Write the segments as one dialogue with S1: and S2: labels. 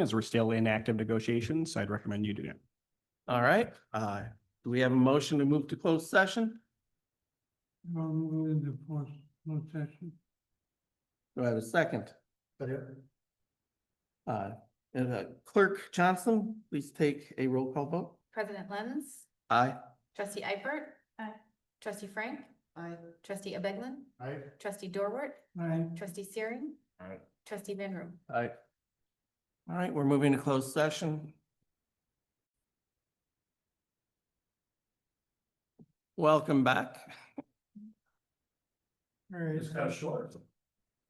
S1: as we're still in active negotiations. I'd recommend you do it.
S2: All right, uh, do we have a motion to move to closed session?
S3: I'll move into closed closed session.
S2: Do I have a second? Uh, and uh, Clerk Johnson, please take a roll call vote.
S4: President Lenz,
S2: Aye.
S4: trustee Eifert. Aye. Trustee Frank. Aye. Trustee Abeglin,
S3: Aye.
S4: trustee Dorwart,
S3: Aye.
S4: trustee Searing.
S3: Aye.
S4: Trustee Van Room.
S2: Aye. All right, we're moving to closed session. Welcome back.
S3: All right.
S2: short.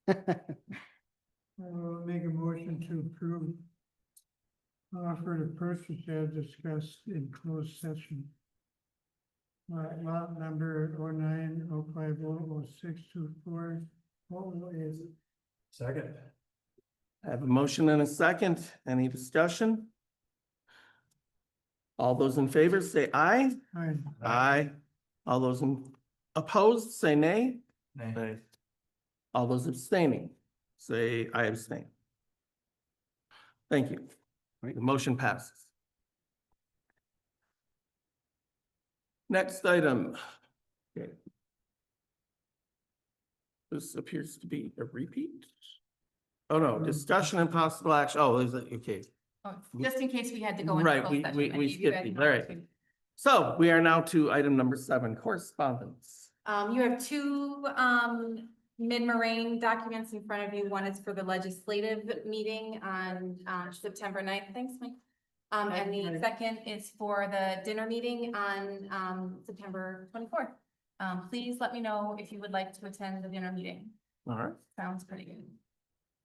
S3: uh, I'll make a motion to approve. Offer to purchase as discussed in closed session. Lot, lot number oh nine oh five oh oh six two four. oh What is it?
S5: Second.
S2: I have a motion and a second. Any discussion? All those in favor say aye.
S3: Aye.
S2: Aye. All those in- opposed, say nay.
S5: Nay.
S2: All those abstaining, say I abstain. Thank you.
S1: Right.
S2: The motion passes. Next item. Okay. This appears to be a repeat. Oh, no, discussion and possible action. Oh, is it, okay.
S4: Oh, Just in case we had to go. into
S2: Right,
S4: closed
S2: we-
S4: session,
S2: we-
S4: I
S2: we
S4: gave you
S2: skipped
S4: guys
S2: it.
S4: an
S2: All right.
S4: opportunity.
S2: So we are now to item number seven, correspondence.
S4: Um, you have two, um, mid-marine documents in front of you. One is for the legislative meeting on, uh, September 9th. Thanks, Mike. Um, and the second is for the dinner meeting on, um, September twenty-fourth. Um, please let me know if you would like to attend the dinner meeting.
S2: All right.
S4: Sounds pretty good.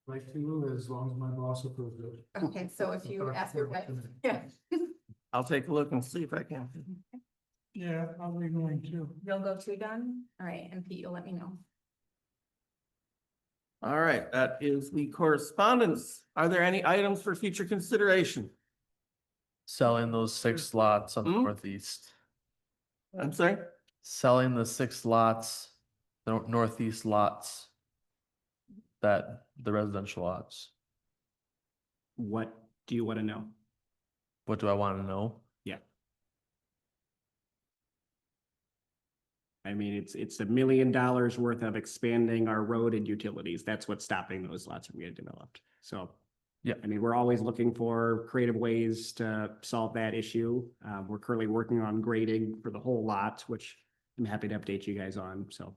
S5: Like to, as long as my boss approves it.
S4: Okay, so if you ask your wife, yeah,
S2: I'll take a look and see if I can.
S3: Yeah, I'll be going too.
S4: you'll go too, Don? All right, and Pete, you'll let me know.
S2: All right, that is the correspondence. Are there any items for future consideration?
S6: Selling those six lots on the
S2: Hmm?
S6: northeast,
S2: I'm sorry?
S6: selling the six lots, the nor- northeast lots. That, the residential lots.
S1: What do you want to know?
S6: What do I want to know?
S1: I mean, it's, it's a million dollars worth of expanding our road and utilities. That's what's stopping those lots from getting developed. So.
S6: Yeah.
S1: I mean, we're always looking for creative ways to solve that issue. Uh, we're currently working on grading for the whole lot, which I'm happy to update you guys on. So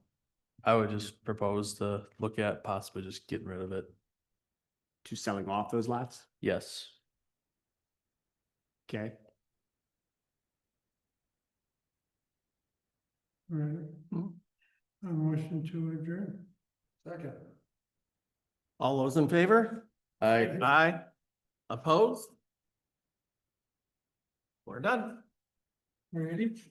S6: I would just propose to look at possibly just getting rid of it.
S1: to selling off those lots.
S6: Yes.
S1: Okay.
S3: Right. A motion to adjourn.
S5: Second.
S2: All those in favor?
S6: I.
S2: Aye. Opposed? We're done.
S3: Ready?